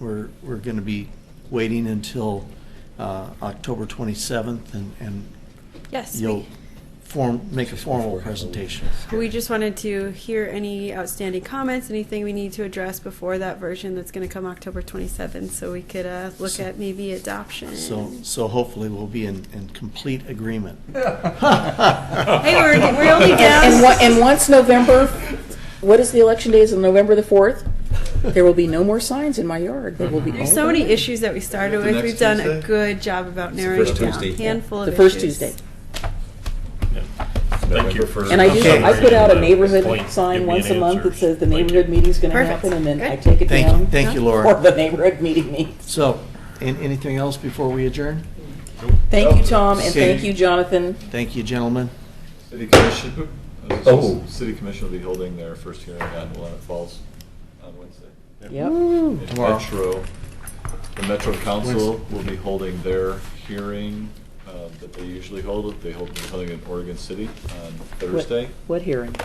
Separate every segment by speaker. Speaker 1: we're, we're going to be waiting until uh, October 27th and, and
Speaker 2: Yes.
Speaker 1: you'll
Speaker 2: we-
Speaker 1: form, make a formal presentation.
Speaker 2: We just wanted to hear any outstanding comments, anything we need to address before that version that's going to come October 27th, so we could uh, look at maybe adoption.
Speaker 1: So, so hopefully we'll be in, in complete agreement.
Speaker 2: Hey, we're, we're only
Speaker 3: And,
Speaker 2: down.
Speaker 3: on- and once November, what is the election day? Is it November the fourth? There will be no more signs in my yard. There will be
Speaker 2: There's
Speaker 3: all
Speaker 2: so many
Speaker 3: gone.
Speaker 2: issues that we started
Speaker 4: The
Speaker 2: with.
Speaker 4: next
Speaker 2: We've done a
Speaker 4: Tuesday?
Speaker 2: good job about narrowing it
Speaker 4: first
Speaker 2: down a
Speaker 4: Tuesday.
Speaker 2: handful of
Speaker 3: The first
Speaker 2: issues.
Speaker 3: Tuesday,
Speaker 5: Thank you for.
Speaker 3: and I do.
Speaker 1: Okay.
Speaker 3: I put out a
Speaker 5: Point.
Speaker 3: neighborhood
Speaker 5: Give
Speaker 3: sign
Speaker 5: me
Speaker 3: once
Speaker 5: an
Speaker 3: a month
Speaker 5: answer.
Speaker 3: that says the
Speaker 5: Thank you.
Speaker 3: neighborhood meeting's going to
Speaker 2: Perfect.
Speaker 3: happen, and then I
Speaker 2: Good.
Speaker 3: take it
Speaker 1: Thank you,
Speaker 3: down
Speaker 1: thank you,
Speaker 3: for
Speaker 1: Laura.
Speaker 3: the neighborhood meeting meets.
Speaker 1: So, an anything else before we adjourn?
Speaker 3: Thank you, Tom, and
Speaker 1: Okay.
Speaker 3: thank you, Jonathan.
Speaker 1: Thank you, gentlemen.
Speaker 4: City Commission, I was
Speaker 5: Oh.
Speaker 4: just- City Commission will be holding their first hearing on Willamette Falls on Wednesday.
Speaker 3: Yep.
Speaker 4: And
Speaker 1: Tomorrow.
Speaker 4: Metro, the Metro Council will be holding their hearing uh, that they usually hold, they hold something in Oregon City Um, on
Speaker 3: What-
Speaker 4: Thursday.
Speaker 3: What hearing?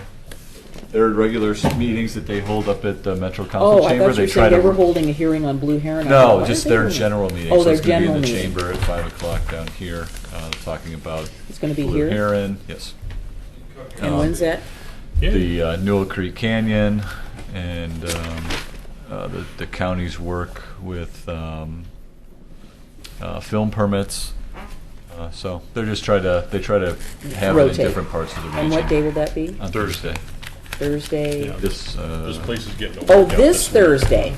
Speaker 4: Their regular s- meetings that they hold up at the Metro
Speaker 3: Oh,
Speaker 4: Council
Speaker 3: I
Speaker 4: Chamber,
Speaker 3: thought
Speaker 4: they
Speaker 3: you
Speaker 4: try
Speaker 3: said they were
Speaker 4: to.
Speaker 3: holding a hearing on Blue Heron. I thought,
Speaker 4: No,
Speaker 3: why are
Speaker 4: just
Speaker 3: they
Speaker 4: their
Speaker 3: doing that?
Speaker 4: general meeting,
Speaker 3: Oh,
Speaker 4: so
Speaker 3: their
Speaker 4: it's gonna be
Speaker 3: general
Speaker 4: in the
Speaker 3: meeting.
Speaker 4: chamber at five o'clock down here, uh, talking about.
Speaker 3: It's gonna be
Speaker 4: Blue
Speaker 3: here?
Speaker 4: Heron, yes.
Speaker 3: And
Speaker 4: Um,
Speaker 3: when's that?
Speaker 4: the uh, Newell Creek Canyon and um, uh, the, the county's work with um, uh, film permits. Uh, so they're just try to they try to have it in
Speaker 3: Rotate.
Speaker 4: different parts of the region.
Speaker 3: And what day will that be?
Speaker 4: On Thursday.
Speaker 3: Thursday.
Speaker 4: This uh,
Speaker 5: This place is getting.
Speaker 3: Oh, this Thursday.